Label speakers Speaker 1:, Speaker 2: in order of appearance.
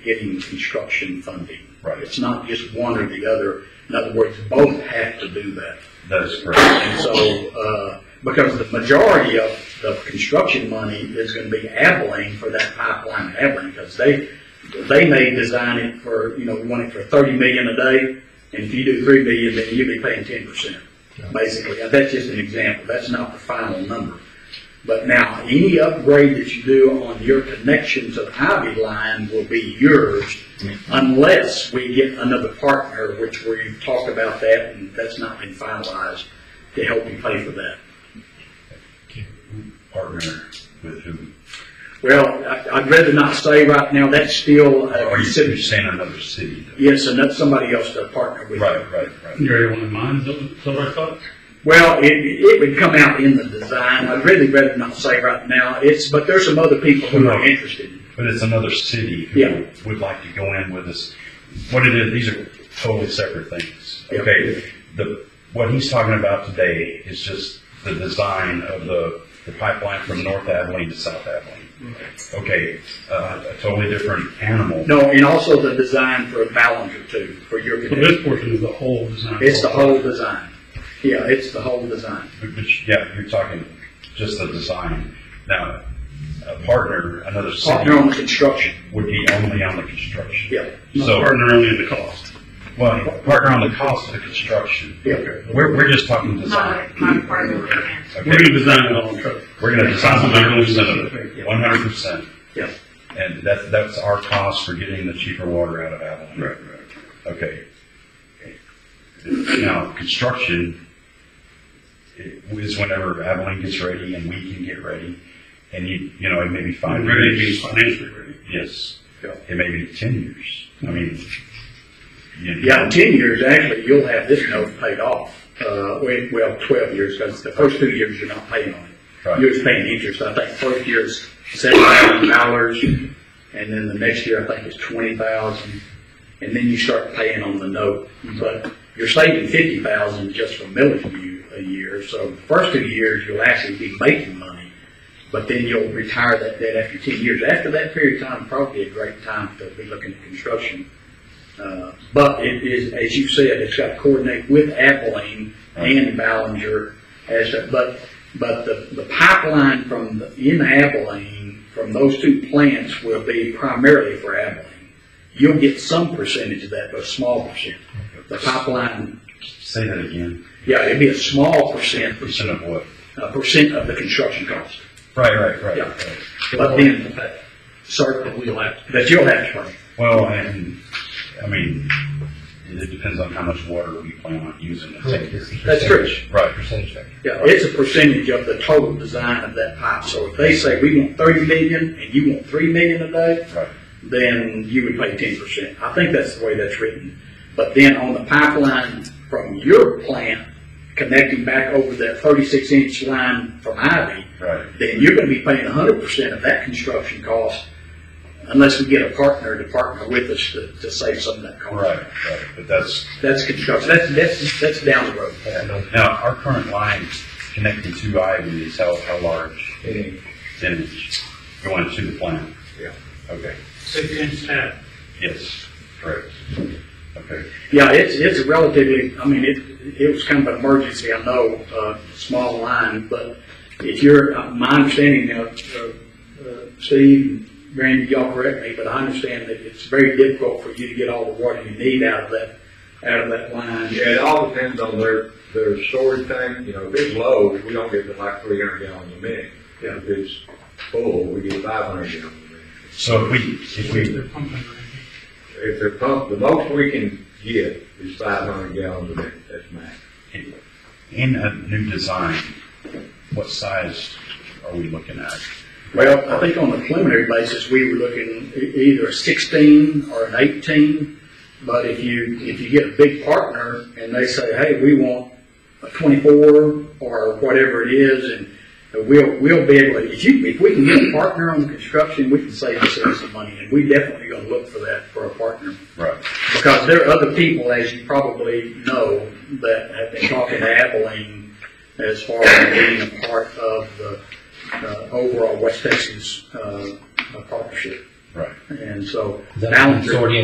Speaker 1: getting construction funding.
Speaker 2: Right.
Speaker 1: It's not just one or the other. In other words, both have to do that.
Speaker 2: That is correct.
Speaker 1: And so, uh, because the majority of the construction money is gonna be Abilene for that pipeline in Abilene, because they, they may design it for, you know, we want it for thirty million a day, and if you do three million, then you'll be paying ten percent, basically. And that's just an example, that's not the final number. But now, any upgrade that you do on your connection to the Ivy line will be yours unless we get another partner, which we've talked about that, and that's not been finalized, to help you pay for that.
Speaker 2: Partner with whom?
Speaker 1: Well, I- I'd rather not say right now, that's still a
Speaker 2: Or Oh, you said you're
Speaker 1: consideration.
Speaker 2: saying another city. though.
Speaker 1: Yes, and that's somebody else to partner with.
Speaker 2: Right, right, right.
Speaker 3: You already wanted mine, is that what- is that what I thought?
Speaker 1: Well, it, it would come out in the design, I'd really rather not say right now, it's, but there's some other people who are interested.
Speaker 2: But it's another city
Speaker 1: Yeah.
Speaker 2: who would like to go in with us. What it is, these are totally separate things.
Speaker 1: Yeah.
Speaker 2: Okay, the, what he's talking about today is just the design of the, the pipeline from North Abilene to South Abilene.
Speaker 3: Mm-hmm.
Speaker 2: Okay, uh, a totally different animal.
Speaker 1: No, and also the design for a Ballinger too, for your
Speaker 3: So
Speaker 1: connection.
Speaker 3: this portion is the whole design.
Speaker 1: It's the whole design. Yeah, it's the whole design.
Speaker 2: But- but you- Yeah, you're talking just the design. Now, a partner, another
Speaker 1: Partner on
Speaker 2: city
Speaker 1: the construction,
Speaker 2: would be only on the construction.
Speaker 1: yeah.
Speaker 3: Not
Speaker 2: So-
Speaker 3: partner only in the cost.
Speaker 2: Well, partner on the cost of the construction.
Speaker 1: Yeah.
Speaker 2: We're, we're just talking design.
Speaker 4: Not, not part of the plan.
Speaker 3: We're
Speaker 2: Okay,
Speaker 3: gonna design it all in truck.
Speaker 2: we're gonna design one hundred percent.
Speaker 1: Yeah.
Speaker 2: And that's, that's our cost for getting the cheaper water out of Abilene. Right, right. Okay. Now, construction is whenever Abilene gets ready and we can get ready, and you, you know, it may be five
Speaker 3: I'm
Speaker 2: years.
Speaker 3: ready to be financially ready.
Speaker 2: Yes.
Speaker 1: Yeah.
Speaker 2: It may be ten years. I mean. you know,
Speaker 1: Yeah, in ten years, actually, you'll have this note paid off, uh, well, well, twelve years, because the first two years you're not paying on it.
Speaker 2: Right.
Speaker 1: You're just paying interest, I think first year is seven thousand dollars, and then the next year, I think it's twenty thousand, and then you start paying on the note, but you're saving fifty thousand just from millage view a year, so the first two years, you'll actually be making money, but then you'll retire that debt after ten years. After that period of time, probably a great time to be looking at construction. Uh, But it is, as you said, it's got to coordinate with Abilene and Ballinger as, a- but, but the, the pipeline from, the- in Abilene, from those two plants will be primarily for Abilene. You'll get some percentage of that, but a small percent. The pipeline,
Speaker 2: Say that again.
Speaker 1: yeah, it'd be a small percent,
Speaker 2: Percent of what?
Speaker 1: a percent of the construction cost.
Speaker 2: Right, right, right.
Speaker 1: Yeah.
Speaker 2: right.
Speaker 1: But then, sir, that we'll have, that you'll have to pay.
Speaker 2: Well, and, I mean, it depends on how much water we plan on using in ten years.
Speaker 1: That's true.
Speaker 2: Right.
Speaker 1: Yeah, it's a percentage of the total design of that pipe. So if they say we want thirty million and you want three million a day,
Speaker 2: Right.
Speaker 1: then you would pay ten percent. I think that's the way that's written. But then on the pipeline from your plant connecting back over that thirty-six inch line from Ivy,
Speaker 2: Right.
Speaker 1: then you're gonna be paying hundred percent of that construction cost unless we get a partner to partner with us to, to save some of that cost.
Speaker 2: Right, right, but that's,
Speaker 1: That's construction, that's, that's, that's down the road.
Speaker 2: now, our current line connecting to Ivy is how, how large? Ten inch, going to the plant?
Speaker 1: Yeah.
Speaker 2: Okay,
Speaker 3: Six inch tap.
Speaker 2: yes, correct. Okay,
Speaker 1: Yeah, it's, it's relatively, I mean, it, it was kind of an emergency, I know, uh, small line, but if you're, uh, my understanding now, uh, uh, Steve, Randy, y'all correct me, but I understand that it's very difficult for you to get all the water you need out of that, out of that line.
Speaker 5: Yeah, it all depends on their, their storage tank, you know, if it's low, we don't get to like three hundred gallons a minute.
Speaker 1: Yeah.
Speaker 5: If it's full, we get five hundred gallons a minute.
Speaker 2: so if we, if we,
Speaker 3: They're pumping right
Speaker 5: If they're pumped, the most we can get is five hundred gallons a minute, that's max.
Speaker 2: in a new design, what size are we looking at?
Speaker 1: Well, I think on the preliminary basis, we were looking e- either a sixteen or an eighteen. But if you, if you get a big partner and they say, hey, we want a twenty-four or whatever it is, and we'll, we'll be able, to- if you, if we can get a partner on the construction, we can save ourselves some money. And we definitely gonna look for that for a partner.
Speaker 2: Right,
Speaker 1: Because there are other people, as you probably know, that have been talking to Abilene as far as being a part of the uh, overall West Texas uh, partnership.
Speaker 6: Right.
Speaker 2: And so
Speaker 1: Is that a
Speaker 2: Ballenger.
Speaker 1: consortium